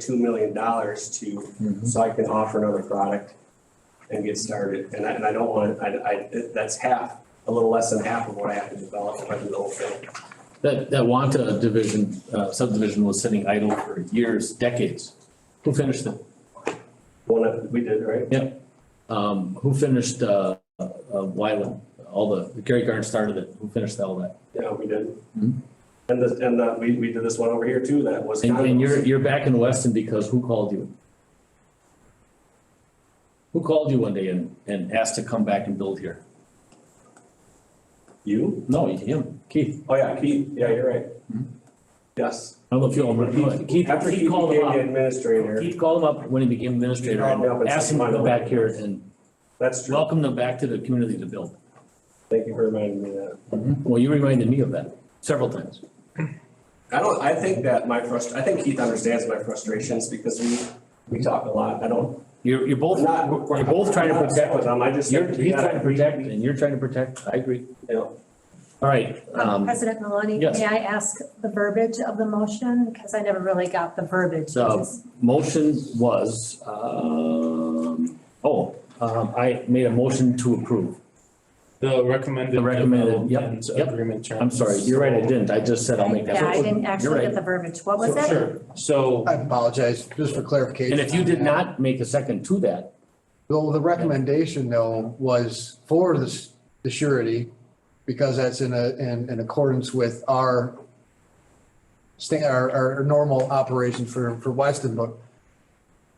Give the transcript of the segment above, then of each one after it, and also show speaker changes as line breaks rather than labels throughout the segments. two million dollars to, so I can offer another product and get started. And I, and I don't want, I, I, that's half, a little less than half of what I have to develop if I do the whole thing.
That, that Wanta division, uh, subdivision was sitting idle for years, decades. Who finished it?
One of, we did, right?
Um, who finished, uh, uh, Wyland? All the, Gary Garn started it. Who finished all that?
Yeah, we did.
Mhm.
And this, and uh, we, we did this one over here too, that was
And, and you're,
condos.
you're back in Weston because who called you? Who called you one day and, and asked to come back and build here?
You?
No, him, Keith.
Oh, yeah, Keith, yeah, you're right.
Mhm.
Yes.
I don't know if you all remember.
Keith-
Keith,
After
Keith
Keith
called him
became the
up.
administrator,
Keith called him up when he became administrator
He called me up
and
and
asked
said,
him to
"Come on
come back
over."
here and
that's true.
welcome them back to the community to build.
Thank you for reminding me of that.
Mm-hmm. Well, you reminded me of that several times.
I don't, I think that my frustr, I think Keith understands my frustrations because we, we talk a lot. I don't,
You're, you're both,
I'm not.
you're both trying to
I'm not upset with
protect,
him. I just.
you're,
think we
he's
gotta
trying to
agree-
protect and you're trying to protect. I agree.
you know,
All right,
Um,
um,
President Maloney,
yes.
may I ask the verbiage of the motion? Because I never really got the verbiage.
So-
It's-
motion was, um, oh, um, I made a motion to approve.
The recommended.
The recommended, yep,
development
yep.
Agreement terms.
I'm sorry, you're right, I didn't. I just said I'll make that.
Yeah, I didn't
You're
actually
right.
get the verbiage. What was
So-
it?
Sure, so,
I apologize, just for clarification.
And if you did not make a second to that,
Well, the recommendation though was for the, s- the surety, because that's in a, in, in accordance with our sta our, our normal operation for, for Weston, but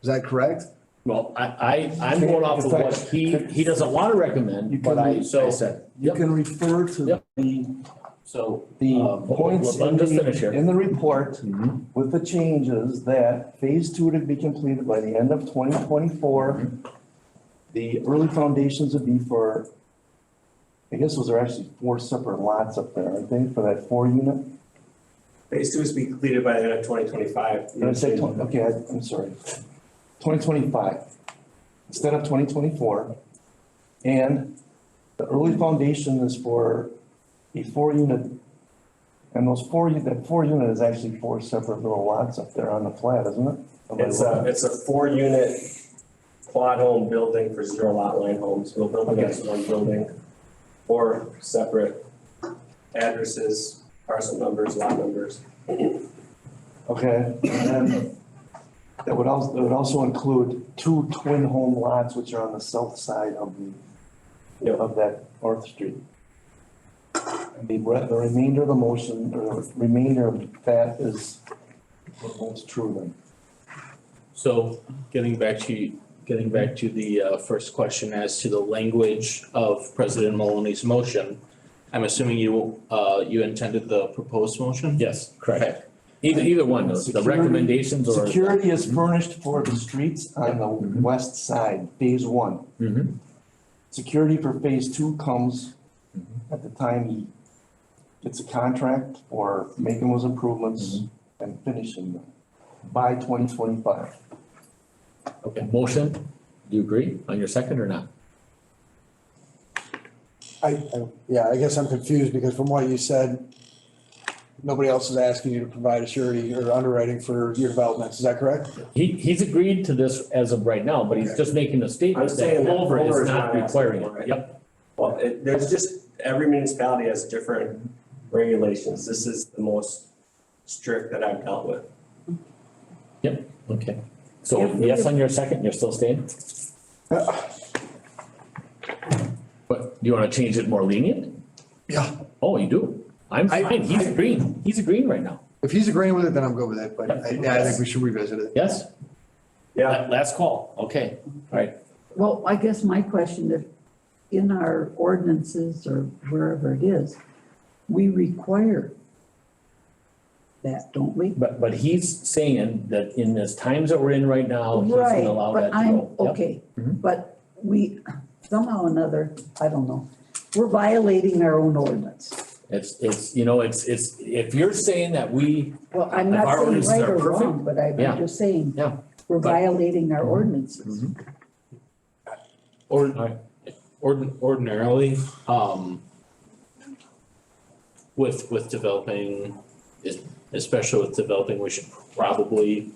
is that correct?
well, I, I, I'm going off of what he, he doesn't want to recommend, but I, I said.
You
Yep,
can refer to
Yep.
the,
so.
the
um,
points
let-
in
Just finish
the,
here.
in the report
Mm-hmm.
Mhm.
with the changes that phase two to be completed by the end of twenty twenty-four. The early foundations would be for, I guess those are actually four separate lots up there, aren't they, for that four unit?
Phase two is to be completed by the end of twenty twenty-five.
Did I say twenty, okay, I- I'm sorry. Twenty twenty-five instead of twenty twenty-four. And the early foundation is for a four unit. And those four, u- that four unit is actually four separate little lots up there on the flat, isn't it? Am I
It's uh, a,
wrong?
it's a four-unit quad home building for zero lot line homes. We'll build them as one building. Or separate addresses, parcel numbers, lot numbers.
Okay, and then that would also, that would also include two twin home lots which are on the south side of the,
Yep.
of that North Street. And the, re- the remainder of the motion, or the remainder of that is what holds true then.
so getting back to, getting back to the uh, first question as to the language of President Maloney's motion. I'm assuming you, uh, you intended the proposed motion?
Yes, correct. Either, either one, those, the recommendations or.
Security is furnished for the streets on the west side, phase one.
Mhm.
Security for phase two comes at the time he gets a contract or making those improvements and finishing them by twenty twenty-five.
Okay, motion, do you agree on your second or not?
I, I- yeah, I guess I'm confused because from what you said, nobody else is asking you to provide a surety or underwriting for your developments, is that correct?
He, he's agreed to this as of right now, but he's just making a
I'm
statement that
saying that
Culver
Culver
is
is
not
not asking
requiring
for
it.
it.
Yep,
Well, it, there's just, every municipality has different regulations. This is the most strict that I've dealt with.
okay. So yes on your second, you're still staying? But do you wanna change it more lenient?
Yeah.
Oh, you do? I'm
I-
fine, he's agreeing, he's agreeing right now,
If he's agreeing with it, then I'm good with it, but I, yeah, I think we should revisit it.
yes?
Yeah,
La- Last call, okay, all right.
Well, I guess my question, if in our ordinances or wherever it is, we require that, don't we?
But, but he's saying that in this times that we're in right now, he's
Right,
gonna allow that
but
to go.
I'm,
Yep.
okay,
Mhm.
but we, somehow or another, I don't know, we're violating our own ordinance.
It's, it's, you know, it's, it's, if you're saying that we,
Well, I'm
If
not
our
saying
ordinances
right
are
or
perfect,
wrong, but I'm
yeah.
just saying,
Yeah.
we're
But- Mm-hmm.
violating our ordinances.
Or,
Alright.
ord- ordinarily, um, with, with developing, es- especially with developing, we should probably